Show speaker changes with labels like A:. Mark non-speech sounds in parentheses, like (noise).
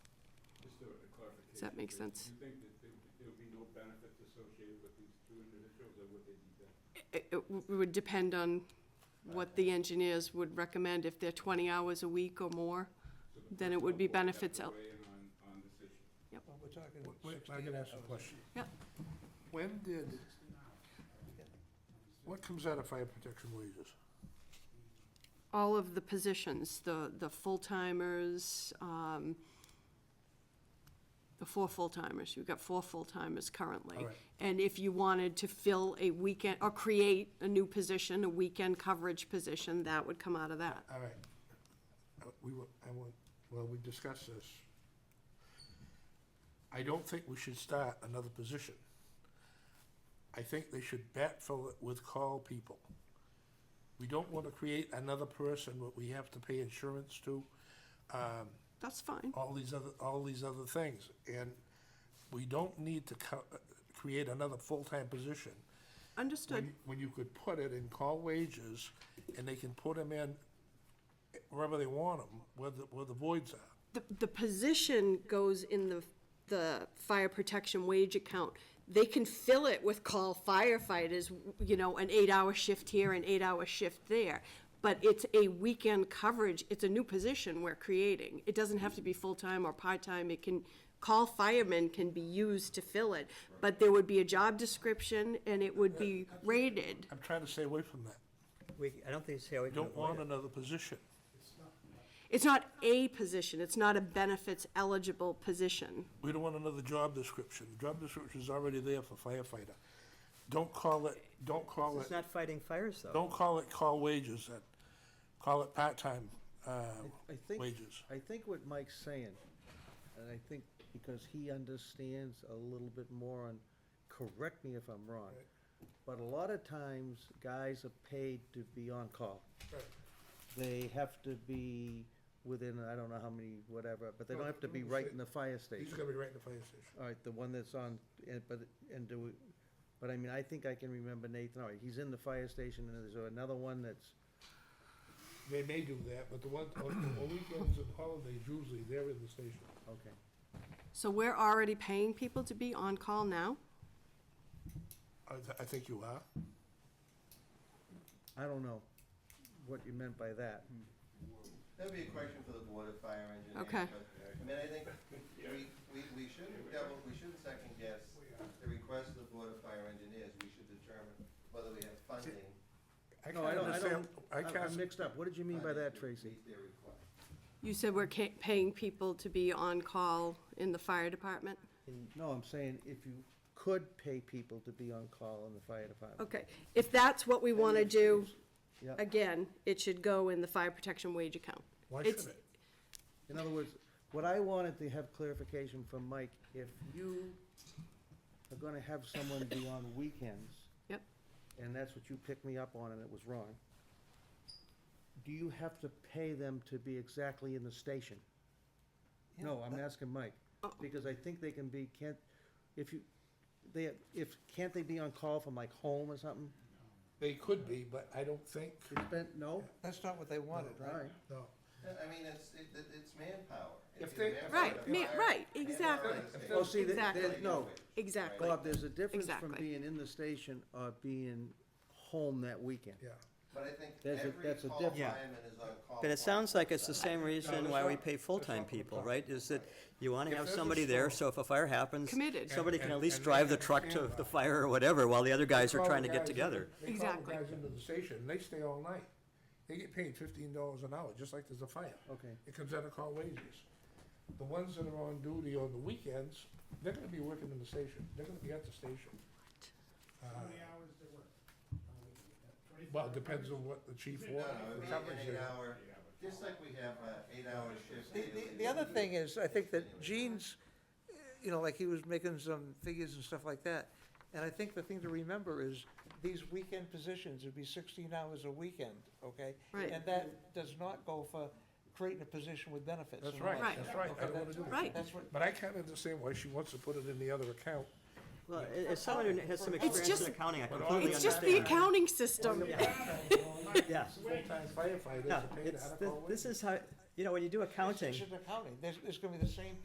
A: Does that make sense?
B: You think that there- there'll be no benefits associated with these two individuals, or would they be benefits?
A: It it w- would depend on what the engineers would recommend. If they're 20 hours a week or more, then it would be benefits out.
B: Weigh in on, on this issue.
C: Well, we're talking
D: Wait,
C: sixteen
D: I'm gonna ask a
C: hours.
D: question.
A: Yeah.
D: When did, what comes out of fire protection wages?
A: All of the positions, the, the full-timers, um, the four full-timers, you've got four full-timers currently.
D: All right.
A: And if you wanted to fill a weekend, or create a new position, a weekend coverage position, that would come out of that.
D: All right. Uh, We were, I want, well, we discussed this. I don't think we should start another position. I think they should backfill it with call people. We don't want to create another person that we have to pay insurance to.
A: That's fine.
D: all these other, all these other things. And we don't need to co- uh, create another full-time position.
A: Understood.
D: When, when you could put it in call wages, and they can put them in wherever they want them, where the, where the voids are.
A: The, the position goes in the, the fire protection wage account. They can fill it with call firefighters, you know, an eight-hour shift here, an eight-hour shift there. But it's a weekend coverage, it's a new position we're creating. It doesn't have to be full-time or part-time, it can, call firemen can be used to fill it. But there would be a job description and it would be rated.
D: I'm trying to stay away from that.
C: We, I don't think it's how we
D: We
C: can
D: don't want
C: avoid it.
D: another position.
A: It's not a position, it's not a benefits eligible position.
D: We don't want another job description. The job description is already there for firefighter. Don't call it, don't call
C: It's
D: it,
C: not fighting fires, though.
D: don't call it call wages then. Call it part-time, uh,
E: I think,
D: wages.
E: I think what Mike's saying, and I think because he understands a little bit more on, correct me if I'm wrong, but a lot of times, guys are paid to be on call. They have to be within, I don't know how many, whatever, but they don't have to be right in the fire station.
D: He's gonna be right in the fire station.
E: All right, the one that's on, and, but, and do, we- but I mean, I think I can remember Nathan, all right, he's in the fire station, and there's another one that's,
D: They may do that, but the one, on on weekends and holidays, usually they're in the station.
E: okay.
A: So we're already paying people to be on call now?
D: I, th- I think you are.
E: I don't know what you meant by that.
F: That'd be a question for the Board of Fire Engineers.
A: Okay.
F: but, I mean, I think we, we, we shouldn't double, we shouldn't second guess the request of the Board of Fire Engineers. We should determine whether we have funding.
D: I
E: No, I don't, I
D: understand-
E: don't,
D: I
E: I'm- I'm
D: can't,
E: mixed up. What did you mean by
F: funding
E: that,
F: to
E: Tracy?
F: Meet their request.
A: You said we're ca- paying people to be on call in the fire department?
E: No, I'm saying if you could pay people to be on call in the fire department.
A: Okay, if that's what we want to do,
E: Yeah.
A: again, it should go in the fire protection wage account.
D: why
A: It's-
D: should it?
E: In other words, what I wanted to have clarification from Mike, if you are gonna have someone be on weekends,
A: Yep,
E: and that's what you picked me up on and it was wrong, do you have to pay them to be exactly in the station? No, I'm asking Mike, because I think they can be, can't, if you, they, if, can't they be on call from like home or something?
D: They could be, but I don't think,
E: It's been, no?
C: That's not what they wanted,
E: All right.
C: right?
D: no.
F: I mean, it's, it, it- it's manpower.
D: If
F: It's
D: they-
F: manpower
A: Right,
F: to
A: ma-
F: fire-
A: right,
F: manpower
A: exactly.
F: to stay.
E: Oh, see, that,
A: Exactly.
E: that, no,
A: exactly.
E: Bob, there's a difference from
A: Exactly.
E: being in the station or being home that weekend.
D: yeah.
F: But I think
E: There's a-
F: every
E: that's a
F: call
E: difference.
C: Yeah.
F: fireman is on call.
C: But it sounds like it's the same
D: No,
C: reason
D: that's
C: why we
D: not-
C: pay
D: that's not
C: full-time
D: what we're
C: people,
D: talking
C: right? Is that you want
D: If
C: to have
D: there's a
C: somebody there, so
D: storm-
C: if a fire happens,
A: Committed.
C: somebody
D: And-
C: can at
D: and-
C: least
D: and
C: drive
D: they
C: the truck to
D: understand
C: the
D: that.
C: fire or whatever, while the other guys are
D: Call
C: trying
D: the
C: to get
D: guys in-
C: together.
D: They call the
A: Exactly.
D: guys into the station, and they stay all night. They get paid fifteen dollars an hour, just like there's a fire.
E: Okay.
D: It comes out of call wages. The ones that are on duty on the weekends, they're gonna be working in the station, they're gonna be at the station. Uh,
G: How many hours they work? on a weekend? Twenty-four
D: Well, it depends on what the chief
F: No,
D: wants,
F: no,
D: the
F: it'd be
D: coverage.
F: an
D: they-
F: eight-hour, just like we have uh eight-hour shift.
C: The, the, the other thing is, I think that Gene's, uh, you know, like he was making some figures and stuff like that. And I think the thing to remember is, these weekend positions would be sixteen hours a weekend, okay?
A: Right.
C: And that does not go for creating a position with benefits.
D: That's
C: and all
D: right,
A: Right.
C: that.
D: that's right, I don't wanna do that.
A: Right.
C: That's what,
D: But I can't understand why she wants to put it in the other account.
H: Well, a- as someone who has some
A: It's
H: experience
A: just-
H: in accounting, I
D: But
H: completely understand.
A: It's just the accounting system. (laughs)
H: Yeah.
D: Full-time firefighters
H: No,
D: are paid
H: it's,
D: out of
H: thi-
D: all
H: this
D: wages.
H: is how, you know, when you do
C: it's
H: accounting,
C: just accounting, there's, there's gonna be the same